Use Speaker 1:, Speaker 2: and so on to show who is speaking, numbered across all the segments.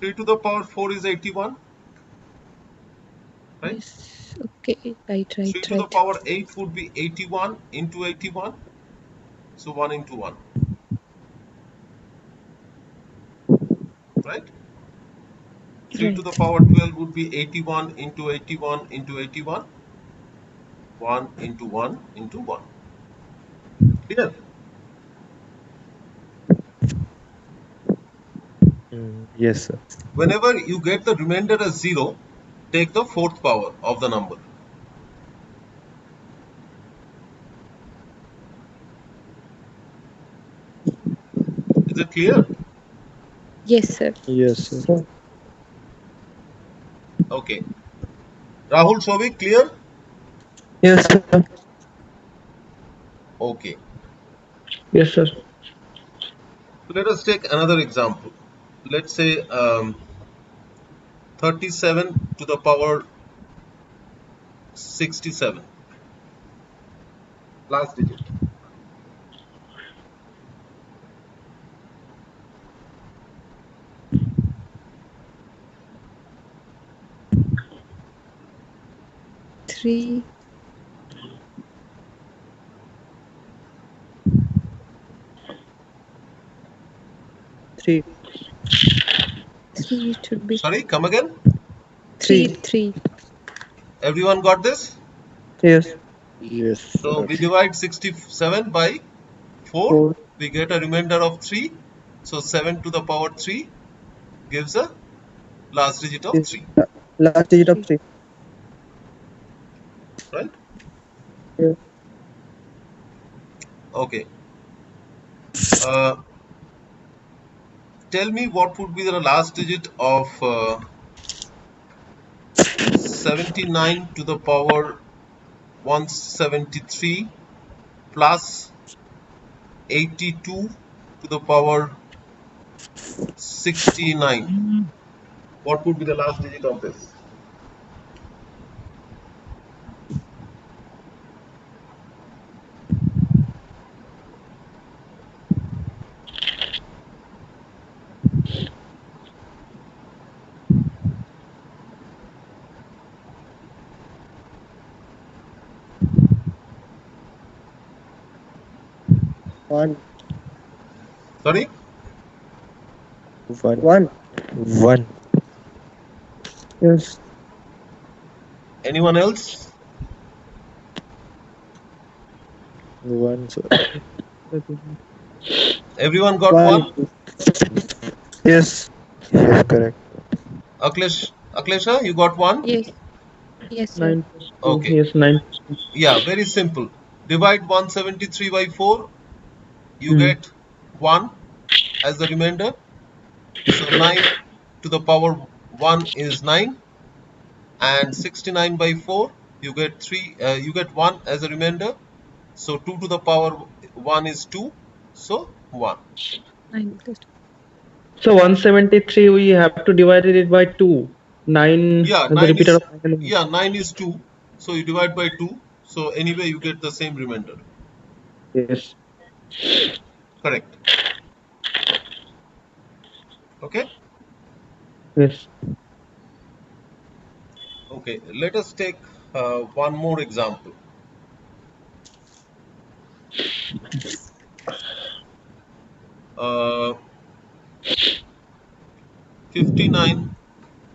Speaker 1: 3 to the power 4 is 81. Right?
Speaker 2: Yes. Okay. Right.
Speaker 1: 3
Speaker 2: Right.
Speaker 1: to the
Speaker 2: Right.
Speaker 1: power 8 would be 81 into 81. So 1 into 1. Right? 3 to the
Speaker 2: Right.
Speaker 1: power 12 would be 81 into 81 into 81. 1 into 1 into 1. Clear?
Speaker 3: Mm, yes, sir.
Speaker 1: Whenever you get the remainder as 0, take the fourth power of the number. Is it clear?
Speaker 2: Yes, sir.
Speaker 3: Yes, sir.
Speaker 1: Okay. Rahul Shovik, clear?
Speaker 3: Yes, sir.
Speaker 1: Okay.
Speaker 3: Yes, sir.
Speaker 1: So let us take another example. Let's say um, 37 to the power 67. Last digit.
Speaker 2: Three.
Speaker 3: Three.
Speaker 2: Three. It should be
Speaker 1: Sorry, come again.
Speaker 2: three.
Speaker 3: Three.
Speaker 2: Three.
Speaker 1: Everyone got this?
Speaker 3: Yes. Yes.
Speaker 1: So we divide 67 by 4.
Speaker 3: Four.
Speaker 1: We get a remainder of 3. So 7 to the power 3 gives a last digit of 3.
Speaker 3: Last digit of three.
Speaker 1: Right?
Speaker 3: Yeah.
Speaker 1: Okay. Uh, tell me what would be the last digit of uh, 79 to the power 173 plus 82 to the power 69. What would be the last digit of this?
Speaker 3: One.
Speaker 1: Sorry?
Speaker 3: One. One. One. Yes.
Speaker 1: Anyone else?
Speaker 3: One, sir.
Speaker 1: Everyone got one?
Speaker 3: Yes. Yes, correct.
Speaker 1: Aklesh, Aklesha, you got one?
Speaker 2: Yes. Yes, sir.
Speaker 4: Nine.
Speaker 1: Okay.
Speaker 4: Yes, nine.
Speaker 1: Yeah, very simple. Divide 173 by 4, you
Speaker 4: Hmm.
Speaker 1: get 1 as the remainder. So 9 to the power 1 is 9, and 69 by 4, you get 3, uh, you get 1 as a remainder. So 2 to the power 1 is 2, so 1.
Speaker 2: Nine. plus two.
Speaker 4: So 173, we have to divide it by 2. 9.
Speaker 1: Yeah,
Speaker 4: the
Speaker 1: 9
Speaker 4: repeater
Speaker 1: is,
Speaker 4: of nine.
Speaker 1: yeah, 9 is 2, so you divide by 2, so anyway you get the same remainder.
Speaker 4: Yes.
Speaker 1: Correct. Okay?
Speaker 4: Yes.
Speaker 1: Okay, let us take uh, one more example. Uh, 59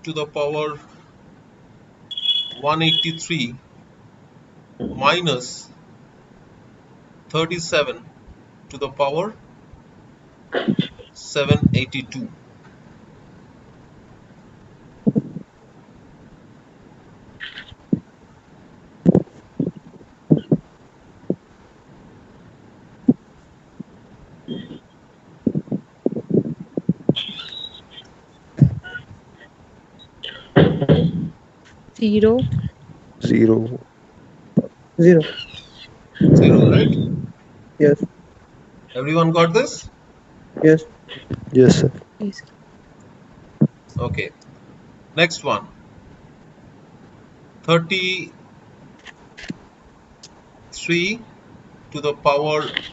Speaker 1: to the power 183 minus 37 to the power 782.
Speaker 2: Zero.
Speaker 3: Zero. Zero.
Speaker 1: 0, right?
Speaker 3: Yes.
Speaker 1: Everyone got this?
Speaker 3: Yes. Yes, sir.
Speaker 2: Yes.
Speaker 1: Okay. Next one. 33 to the power